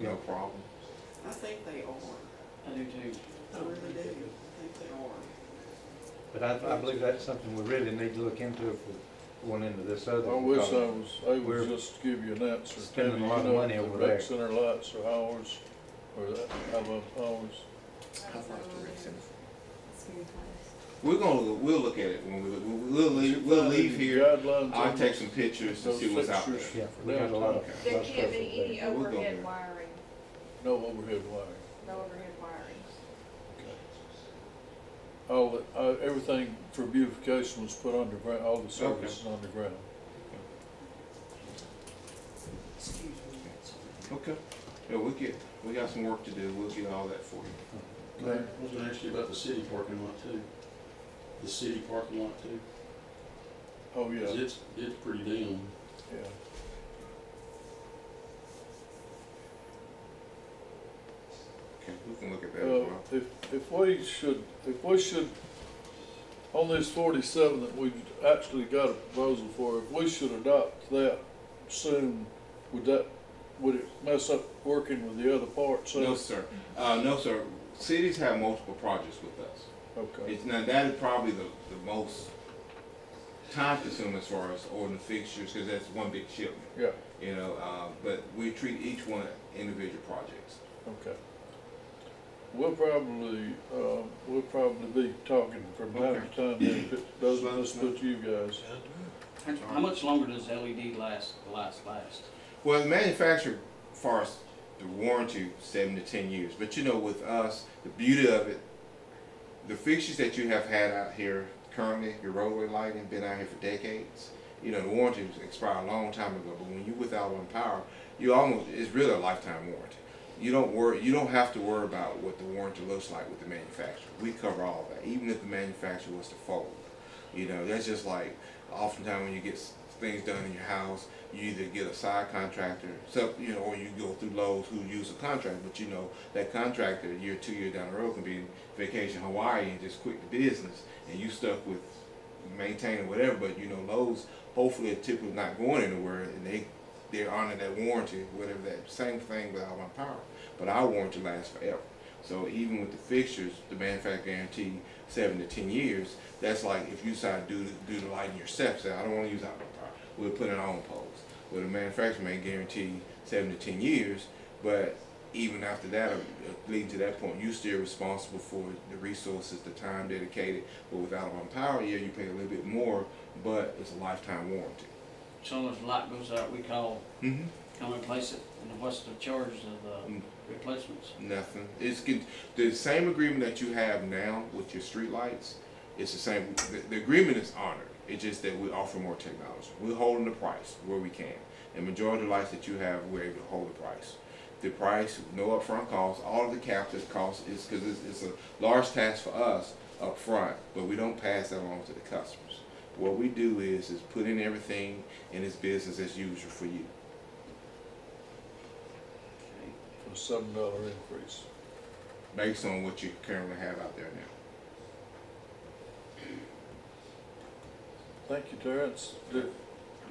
no problem. I think they are, I do too. I really do, I think they are. But I, I believe that's something we really need to look into if we're going into this other. I wish I because was Oh, we're able just to give you an answer. spending a Debbie, lot of you know, money over The there. rec center lights are ours, or that, how about ours? I've lost a reason. It's very close. We're gonna, we'll look at it when we, we'll, we'll Did you leave, we'll find leave any here. guidelines I'll on take this? some pictures and Those see what's out there. pictures? Yeah, we got a lot of. There lot of can't stuff over be there. any We'll go E, overhead there. wiring, No overhead wiring. no overhead wiring. All, the- uh, everything for beautification was put underground, all the services underground. Excuse me, that's all. Okay. Yeah, we'll get, we got some work to do. We'll get all that for you. Okay. I was gonna ask you about the city parking lot too. The city parking lot too, Oh, 'cause yeah, it's, it's pretty down. yeah. Okay, we can look at that as Uh, well. If, if we should, if we should, on this forty-seven that we've actually got a proposal for, if we should adopt that soon, would that, would it mess up working with the other parts? of it? No, sir. Uh, no, sir. Cities have multiple projects with us. Okay, It's, now, that is probably the, the most time consuming as far as ordering fixtures, because that's one big shipment, yeah, you know, uh, but we treat each one individual projects. okay. We'll probably, uh, we'll probably be talking from time to time, if it doesn't us but you guys. How- How much longer does E LED last, the lights last? Well, the manufacturer, as far as the warranty, seven to ten years. But you know, with us, the beauty of it, the fixtures that you have had out here currently, your roadway lighting, been out here for decades. You know, the warranty expired a long time ago. But when you without on power, you almost it's really a lifetime warranty. You don't worry. You don't have to worry about what the warranty looks like with the manufacturer. We cover all that, even if the manufacturer was to fold. You know, that's just like oftentimes when you get s- things done in your house, you either get a side contractor, so you know, or you go through Lowe's who use a contract, but you know that contractor a year, two year down the road can be in vacation Hawaii and just quit the business, and you stuck with maintaining whatever. But you know, Lowe's hopefully are typically not going anywhere, and they they're honoring that warranty, whatever that same thing with Alpine Power. But our warranty lasts forever. So even with the fixtures, the manufacturer guarantee seven to ten years. That's like if you decide to do do the lighting yourself. Say I don't want to use Alpine Power. We'll put in our own poles. Well, the manufacturer may guarantee seven to ten years, but even after that, uh, leading to that point, you're still responsible for the resources, the time dedicated. But with Alpine Power, yeah, you pay a little bit more, but it's a lifetime warranty. So if the light goes out, we call, Mm-hmm. come replace it, and what's the charge of the Mm. replacements? Nothing. It's con- the same agreement that you have now with your streetlights. It's the same. The, the agreement is honored. It's just that we offer more technology. We're holding the price where we can. And majority of the lights that you have, we're able to hold the price. The price, no upfront cost. All of the captive cost is because it's, it's a large task for us upfront, but we don't pass that along to the customers. What we do is is put in everything, and it's business as usual for you. For a seven dollar increase. based on what you currently have out there now. Thank you, Terrence. Did-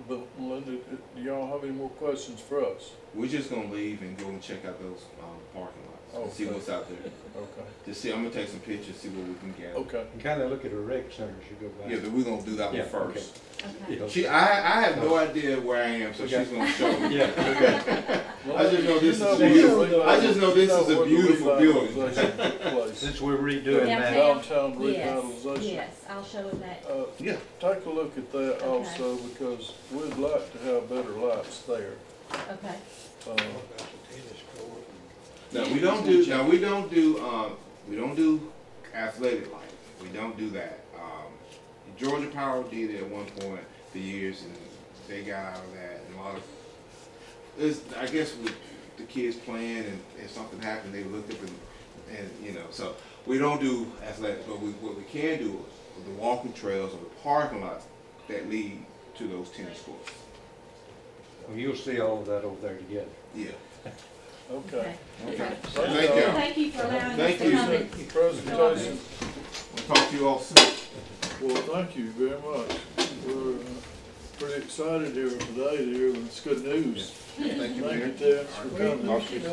But Melinda, do y'all have any more questions for us? We're just gonna leave and go and check out those um, parking lots and see Okay. what's out there. Okay, Just see, I'm gonna take some pictures, see what we can gather. okay. And kinda look at the rec center as you go by. Yeah, but we're gonna do that Yeah, one first. Okay. Yeah. She, I, I have no idea where I am, so Okay. she's gonna show me. Yeah, I just know this is You where the beautiful. revitalization- I just know this is a you where the beautiful revitalization took place. since we're redoing that. Downtown. Downtown Yes, revitalization. yes, I'll show him that. Uh, Yeah. Take a look at that Okay. also, because we'd like to have better lights there. Okay. Uh, No, we don't do. Now we don't do. Um, we don't do athletic life. We don't do that. Um, Georgia Power did it at one point for years, and they got out of that. And a lot of, it's, I guess, with the kids playing, and if something happened, they looked up and, and you know. So we don't do athletics, but we, what we can do is the walking trails or the parking lots that lead to those tennis courts. Well, You'll see all of that over there together. Yeah. Okay. Okay. Thank Thank you. y'all. Thank you for allowing us Thank to you. come in. Presentation, We'll talk to you all soon. well, thank you very much. We're uh, pretty excited here today to hear this good news. Thank you, Thank you, Mayor. Terrence, for coming. Talk to you soon.